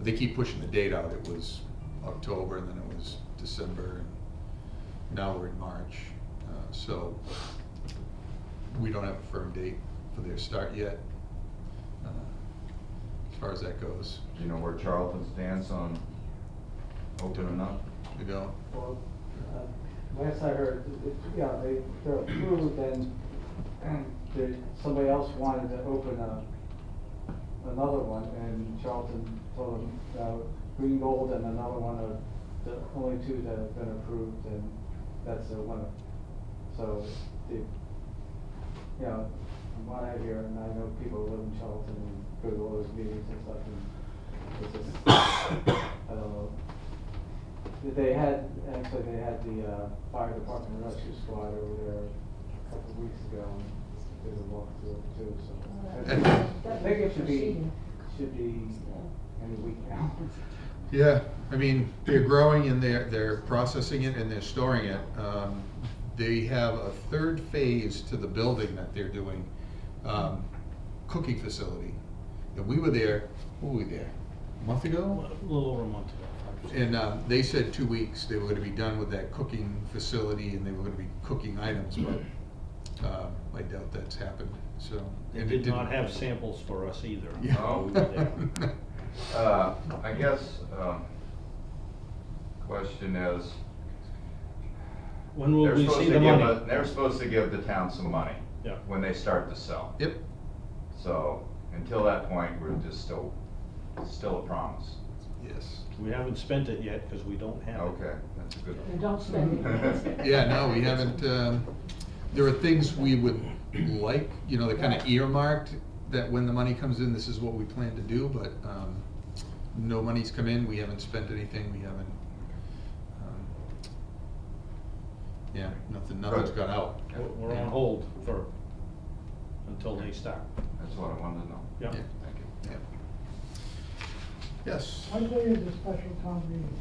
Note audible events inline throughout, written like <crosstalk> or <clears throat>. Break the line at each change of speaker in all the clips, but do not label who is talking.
They keep pushing the date out. It was October and then it was December and now we're in March. Uh, So we don't have a firm date for their start yet, uh, as far as that goes.
Do you know where Charlton stands on opening up?
We don't,
Well, uh, last I heard, it- it- yeah, they, they're approved <clears throat> and there, somebody else wanted to open a, another one and Charlton told them, uh, Green Gold and another one are the only two that have been approved and that's the winner. So, they, you know, from what I hear, and I know people who live in Charlton and go to all those meetings and stuff and it's just, <coughs> I don't know. They had, actually, they had the uh, fire department rescue squad over there a couple of weeks ago, and did a walkthrough too, so. I think it should be, should be any week now.
Yeah, I mean, they're growing and they're, they're processing it and they're storing it. Um, They have a third phase to the building that they're doing, um, cooking facility. And we were there, what were we there, a month ago?
A little over a month ago.
And, um, they said two weeks, they were gonna be done with that cooking facility and they were gonna be cooking items, but, um, I doubt that's happened, so.
They
and it
did not
didn't.
have samples for us either.
Yeah.
while
Oh.
we were
<laughs>
there.
Uh, I guess, um, question is,
When will
they're
we
supposed
see
to
the
give, the-
money?
they're supposed to give the town some money
Yeah.
when they start to sell.
Yep,
So, until that point, we're just still, still a promise.
yes.
We haven't spent it yet because we don't have it.
Okay, that's a good.
And don't spend
<laughs>
it.
Yeah, no, we haven't, um, there are things we would like, you know, they're kind of earmarked, that when the money comes in, this is what we plan to do, but, um, no money's come in, we haven't spent anything, we haven't, um, yeah, nothing, nothing's
Right.
gone out.
Yeah,
We're- We're on hold for, until they start.
That's what I wanted to know.
Yeah.
Yeah.
Thank you.
Yeah. Yes,
One day is a special town meeting,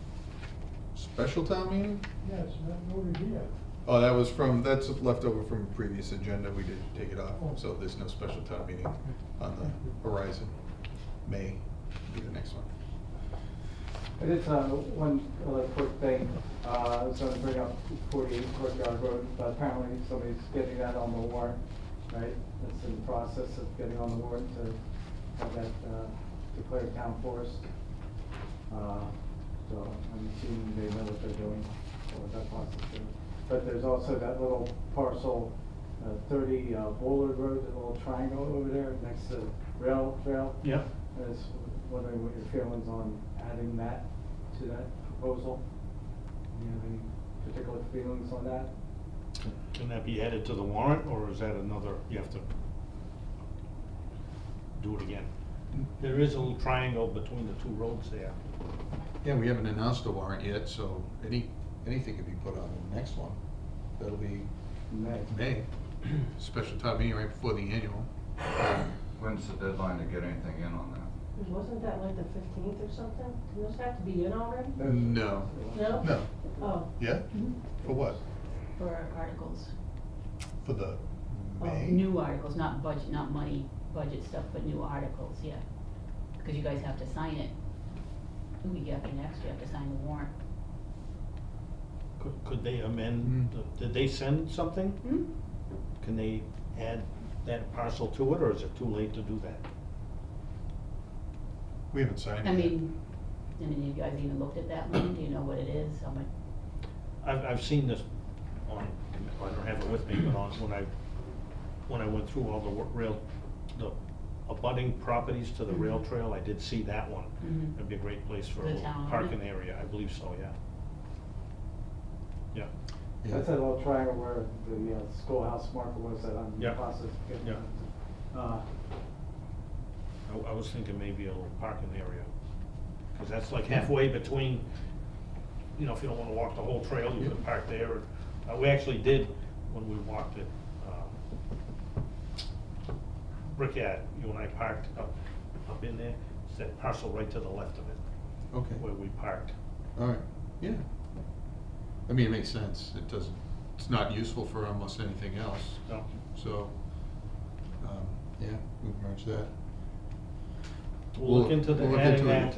special town meeting?
yes, not over here.
Oh, that was from, that's left over from a previous agenda, we did take it off, so there's no special town meeting on the horizon. May be the next one.
I did, uh, one other quick thing, uh, I was gonna bring up forty-eight Courtyard Road, but apparently somebody's getting that on the warrant, right? It's in the process of getting on the warrant to have that, uh, declared town forest. Uh, so I'm assuming they know what they're doing, or what that process is. But there's also that little parcel, uh, thirty uh, Bullard Road, that little triangle over there next to rail trail.
Yeah.
I was wondering what your feelings on adding that to that proposal? Do you have any particular feelings on that?
Can that be added to the warrant or is that another, you have to do it again? There is a little triangle between the two roads there.
Yeah, we haven't announced a warrant yet, so any, anything could be put on the next one. That'll be
May.
<clears throat> May, special town meeting right before the annual.
When's the deadline to get anything in on that?
Wasn't that like the fifteenth or something? Did those have to be in already?
No.
No?
Uh, No,
Oh,
yeah, for what?
For articles,
For the
Oh,
May?
new articles, not budget, not money, budget stuff, but new articles, yeah. Because you guys have to sign it. Who we get next, you have to sign the warrant.
Could, could they
Mm.
amend, the- did they send something?
Hmm?
Can they add that parcel to it or is it too late to do that?
We haven't signed
I mean, I mean, you guys even looked at that one, do you know what it is, how much?
I've, I've seen this on, I don't have it with me, but on, when I, when I went through all the wa- rail, the abutting properties to the rail
Mhm.
trail, I did see that one.
Mhm.
It'd be a great place for a
The
little
town,
parking
yeah.
area, I believe so, yeah. Yeah,
That's that little triangle where the uh, schoolhouse marker was that I'm in the
Yeah.
process of getting.
Yeah.
Uh,
I, I was thinking maybe a little parking area, cause that's like halfway between, you know, if you don't wanna walk the whole trail, you
Yeah.
could park there. Uh, we actually did when we walked it, um, Brickyard, you and I parked up, up in there, it's that parcel right to the left of it,
Okay,
where we parked.
all right, yeah. I mean, it makes sense, it doesn't, it's not useful for almost anything else.
No,
So, um, yeah, we've merged that.
we'll look into the,
We'll look
adding
into it.
that